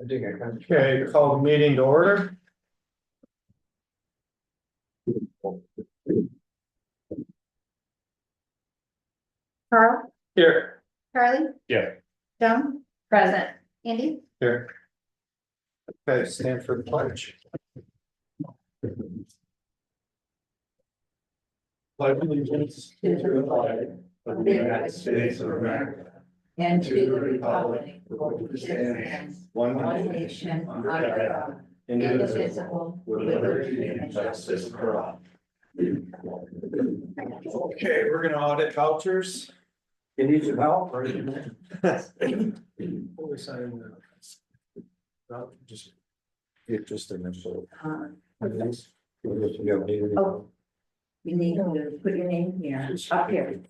I think I kind Okay, call the meeting to order. Carl, Here. Charlie? Yeah. Joan? Present. Andy? Here. Okay, stand for the pledge. Pledge allegiance to the flag of the United States of America. And to the republic for which it stands, one nation, under God, indivisible, with liberty and justice for all. Okay, we're gonna audit vouchers. You need some help or? Before we sign the- No, just- It's just initial. Um, Oh. Oh. You need to put your name here, up here.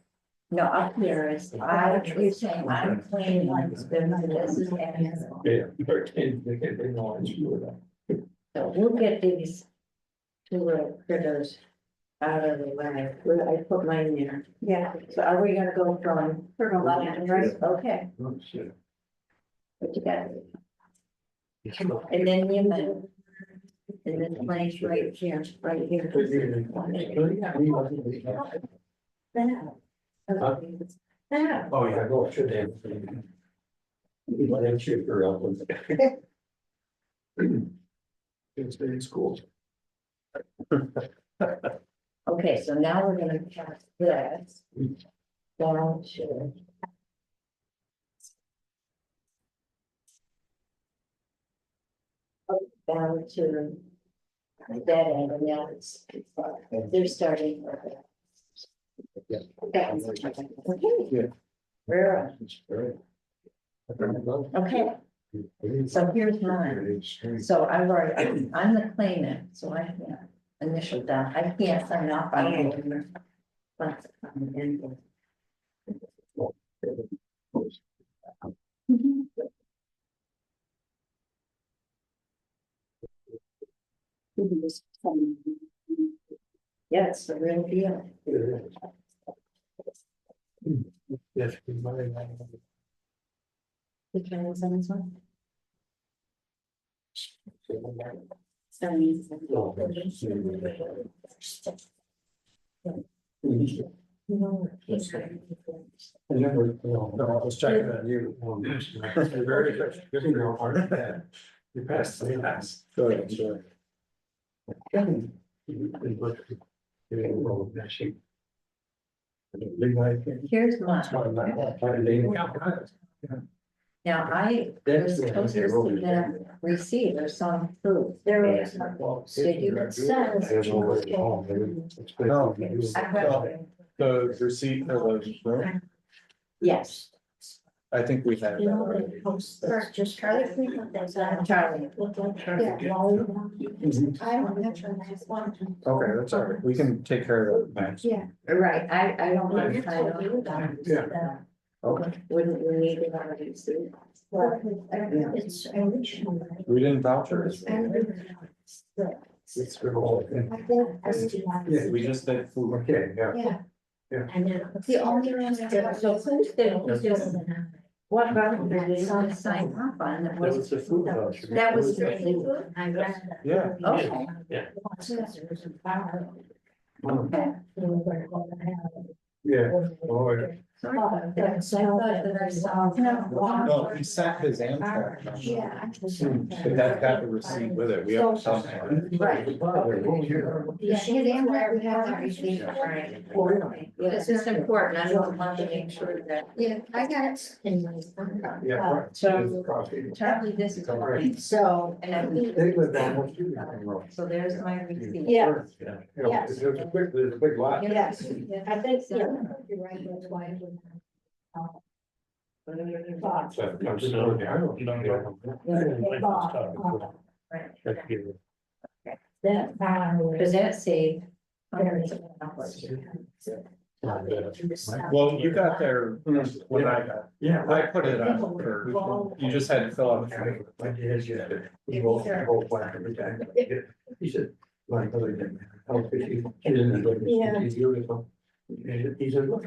No, up here is, I, you're saying, I'm playing like this, this is, and Yeah. Thirteen, they can, they know it's you. so we'll get these. Two little critters out of the way, Where I put mine there. Yeah. So are we gonna go from? From left to right. Okay, Oh, shit. what you got? And then you move. And then place right here, right here. That. Huh? That. Oh, yeah, go, should have. Why don't you, girl? It's been school. Okay, so now we're gonna pass this. Down to. Down to. That end, and now it's, they're starting. Yeah. That's, okay, Yeah. we're, on. Right. okay, so here's mine, so I've already, I'm the claimant, so I can't initial that, I can't sign off on it. But, um, and- Yeah, it's the real deal. Which one is on this one? Seventy. No. it's not. No, I was checking on you. You're very good. You're doing your part. You passed the last. Good, sure. Here's mine. Now, I received or some proof. There is. I read The receipt of the room, it. Yes. I think we have. that already. First, just Charlie, can you put those on? Charlie. I don't have to, I just want to. Okay, that's all right. We can take care of that. next. Yeah. Right, I, I don't want to sign off on it. Yeah. Okay, wouldn't we need it already soon? Well, I don't know, it's original. We didn't vouchers. And It's been all. I think I do like. Yeah, we just did food. Okay, yeah. And then. It's the only one I have. So who's the, who's the, what about the design sign up on that That was? was the food voucher. That was the I Oh, Yeah. Okay. Okay. Yeah. Oh, yeah. Sorry about that. I thought that I saw. No, he sent his Amtrak. Ah, Yeah. I just- But that got the receipt with it. We have something. Right. Yeah, his Amtrak, we have that receipt. Right. This is important, I don't want to make sure that. Yeah, I got it. Yeah. Uh, right. So- Coffee. Charlie, this is mine, Um, so, and I think, They live down what you have. so there's my receipt. Yeah. Yeah, you know, there's a quick, there's a big lot. Yes. I think, yeah. You're right, that's why. I wouldn't have Right. So it comes down there. I don't know. uh, That's good. That, um, does that say? Not bad. Well, you got there when I got, Yeah. Hmm. I put it up for, you just had to fill out. the form. Like it is, yeah. He wrote the whole plan every time. He said, my brother didn't. I was fifty. He didn't. He's beautiful. And he said, look,